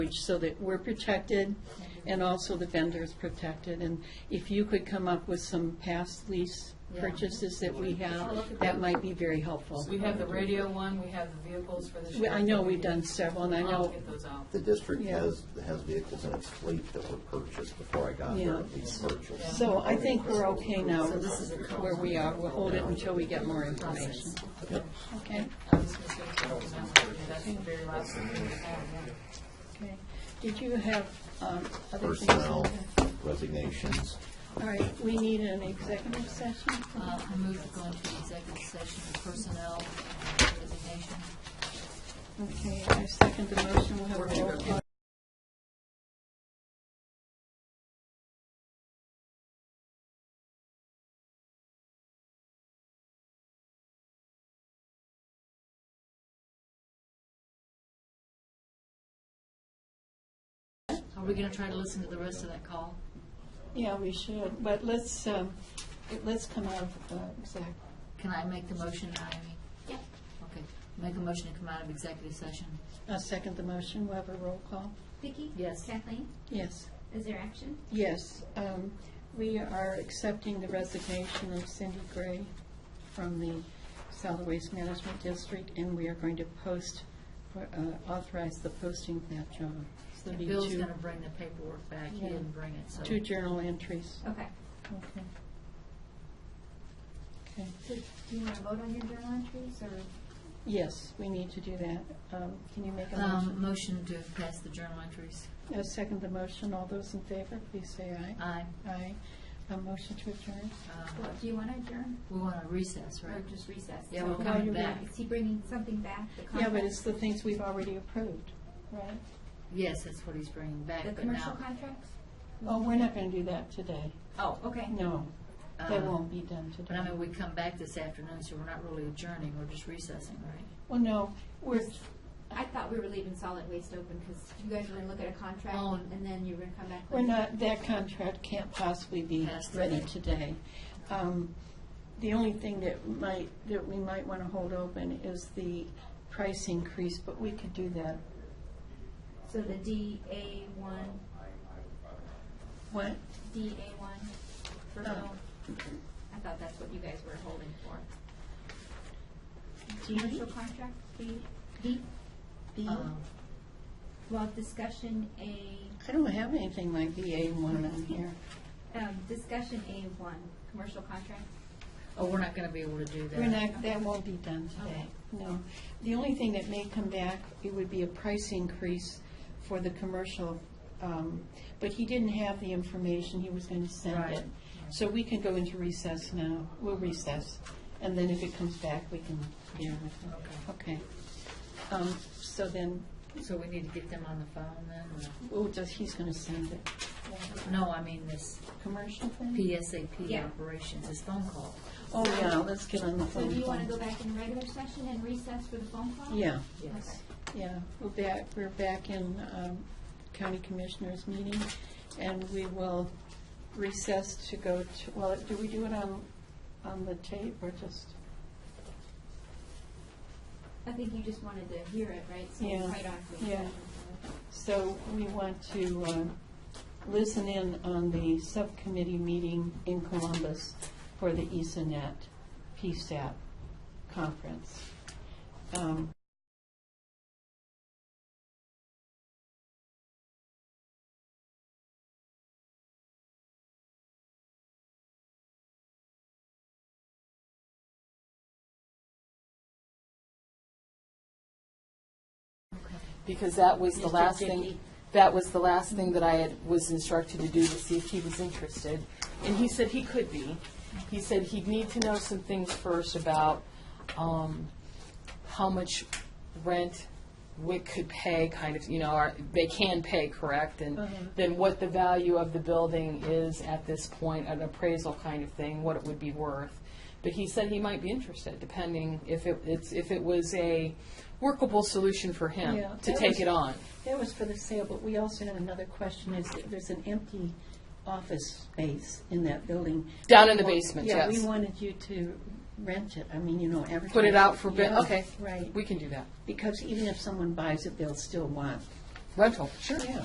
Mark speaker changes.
Speaker 1: language so that we're protected and also the vendor's protected. And if you could come up with some past lease
Speaker 2: Yeah.
Speaker 1: purchases that
Speaker 2: I'll
Speaker 1: we
Speaker 2: look at
Speaker 1: have, that
Speaker 2: that.
Speaker 1: might be very helpful.
Speaker 2: We have the radio one, we have the vehicles for the
Speaker 1: We-
Speaker 2: sheriff.
Speaker 1: I know we've done several, and I
Speaker 2: I'll
Speaker 1: know,
Speaker 2: get those out.
Speaker 3: The district
Speaker 1: Yeah.
Speaker 3: has, has vehicles in its fleet that were purchased before I got
Speaker 1: Yeah.
Speaker 3: here, these purchased.
Speaker 1: so I think we're okay now with where we are. We'll hold it until we get more information. Okay?
Speaker 2: I'm just gonna say those now. Yeah, That's the very last thing we have, yeah.
Speaker 1: Okay. Did you have um, other things?
Speaker 3: Personnel resignations.
Speaker 1: All right, we need an executive session.
Speaker 4: Uh, I move to go into executive session for personnel resignation.
Speaker 1: Okay, I second the motion. We'll have a roll call.
Speaker 4: Are we going to try to listen to the rest of that call?
Speaker 1: Yeah, we should, but let's, um, let's come out of uh, exec.
Speaker 4: Can I make the motion, Amy? Yeah. Okay, make a motion to come out of executive session.
Speaker 1: I uh, second the motion. We'll have a roll call.
Speaker 5: Vicki?
Speaker 4: Yes.
Speaker 5: Kathleen?
Speaker 1: Yes,
Speaker 5: Is there action?
Speaker 1: yes. um, We are accepting the resignation of Cindy Gray from the Solid Waste Management District, and we are going to post, uh, authorize the posting of that job.
Speaker 4: So
Speaker 1: Be
Speaker 4: Bill's
Speaker 1: two-
Speaker 4: going to bring the paperwork back, he
Speaker 1: Yeah.
Speaker 4: didn't bring it, so.
Speaker 1: Two journal entries.
Speaker 5: Okay.
Speaker 1: Okay. Okay.
Speaker 5: So do you want to vote on your journal entries or?
Speaker 1: Yes, we need to do that. Um, Can you make a
Speaker 4: Um,
Speaker 1: motion?
Speaker 4: motion to pass the journal entries.
Speaker 1: I second the motion. All those in favor, please say aye.
Speaker 4: Aye.
Speaker 1: Aye. A motion to adjourn?
Speaker 4: Um,
Speaker 5: Well, do you want to adjourn
Speaker 4: We want to recess,
Speaker 5: or
Speaker 4: right?
Speaker 5: just recess?
Speaker 4: Yeah, we're
Speaker 5: So-
Speaker 4: coming
Speaker 1: you're
Speaker 4: back.
Speaker 5: Is he bringing something back? the
Speaker 1: Yeah, but
Speaker 5: contract?
Speaker 1: it's the things we've already approved, right?
Speaker 4: Yes, that's what he's bringing back,
Speaker 5: The
Speaker 4: but now.
Speaker 5: commercial contracts?
Speaker 1: Oh, we're not going to do that today. Oh.
Speaker 4: Oh,
Speaker 5: Okay.
Speaker 1: No, that
Speaker 4: um,
Speaker 1: won't be done
Speaker 4: But I mean,
Speaker 1: today.
Speaker 4: we come back this afternoon, so we're not really adjourning, we're just recessing, right?
Speaker 1: Well, no, we're,
Speaker 5: I thought we were leaving solid waste open because you guys were going to look at a contract
Speaker 4: Oh.
Speaker 5: and then you were going to come back.
Speaker 1: we're
Speaker 5: with-
Speaker 1: not, that contract can't possibly be
Speaker 4: Passed
Speaker 1: ready
Speaker 4: today.
Speaker 1: today. Um, The only thing that might, that we might want to hold open is the price increase, but we could do that.
Speaker 5: So the DA one,
Speaker 1: What?
Speaker 5: DA one for
Speaker 1: Oh.
Speaker 5: Bill? I thought that's what you guys were holding for.
Speaker 1: D?
Speaker 5: Commercial contract, B, B,
Speaker 1: B?
Speaker 4: Um,
Speaker 5: well, discussion A
Speaker 1: I don't have anything like BA one on here.
Speaker 5: Um, discussion A one, commercial contract.
Speaker 4: Oh, we're not going to be able to do that.
Speaker 1: We're not, that won't be done today, no. The only thing that may come back, it would be a price increase for the commercial, um, but he didn't have the information, he was going to send
Speaker 4: Right.
Speaker 1: it. So we can go into recess now, we'll recess, and then if it comes back, we can deal with it. Okay. Um, So then,
Speaker 4: So we need to get them on the phone then?
Speaker 1: we'll just, he's going to send it.
Speaker 4: or- No, I mean this
Speaker 1: Commercial thing?
Speaker 4: PSAP
Speaker 5: Yeah.
Speaker 4: operations, this phone call.
Speaker 1: Oh, yeah, let's get on the
Speaker 5: So
Speaker 1: phone.
Speaker 5: do you want to go back in regular session and recess for the phone call?
Speaker 1: Yeah.
Speaker 4: Yes.
Speaker 1: Yeah, we're back, we're back in um, county commissioners meeting, and we will recess to go to, well, do we do it on, on the tape or just?
Speaker 5: I think you just wanted to hear it, right? So
Speaker 1: Yeah.
Speaker 5: right on to the
Speaker 1: Yeah.
Speaker 5: session.
Speaker 1: So we want to um, listen in on the subcommittee meeting in Columbus for the E ESANET PSAP conference. Um,
Speaker 6: because that was the
Speaker 1: Mr.
Speaker 6: last
Speaker 1: Dickey.
Speaker 6: thing, that was the last thing that I had, was instructed to do to see if he was interested. And he said he could be. He said he'd need to know some things first about um, how much rent WIC could pay, kind of, you know, or they can pay, correct? And
Speaker 1: Uh-huh.
Speaker 6: then what the value of the building is at this point, an appraisal kind of thing, what it would be worth. But he said he might be interested, depending if it, it's, if it was a workable solution for him
Speaker 1: Yeah,
Speaker 6: to
Speaker 1: that
Speaker 6: take
Speaker 1: was-
Speaker 6: it on.
Speaker 1: That was for the sale, but we also had another question, is that there's an empty office space in that building.
Speaker 6: Down in the basement,
Speaker 1: Yeah, we
Speaker 6: yes.
Speaker 1: wanted you to rent it, I mean, you know, advertise.
Speaker 6: Put it out for bid,
Speaker 1: Yeah,
Speaker 6: okay.
Speaker 1: Right,
Speaker 6: We can do that.
Speaker 1: because even if someone buys it, they'll still want
Speaker 6: rental. Sure.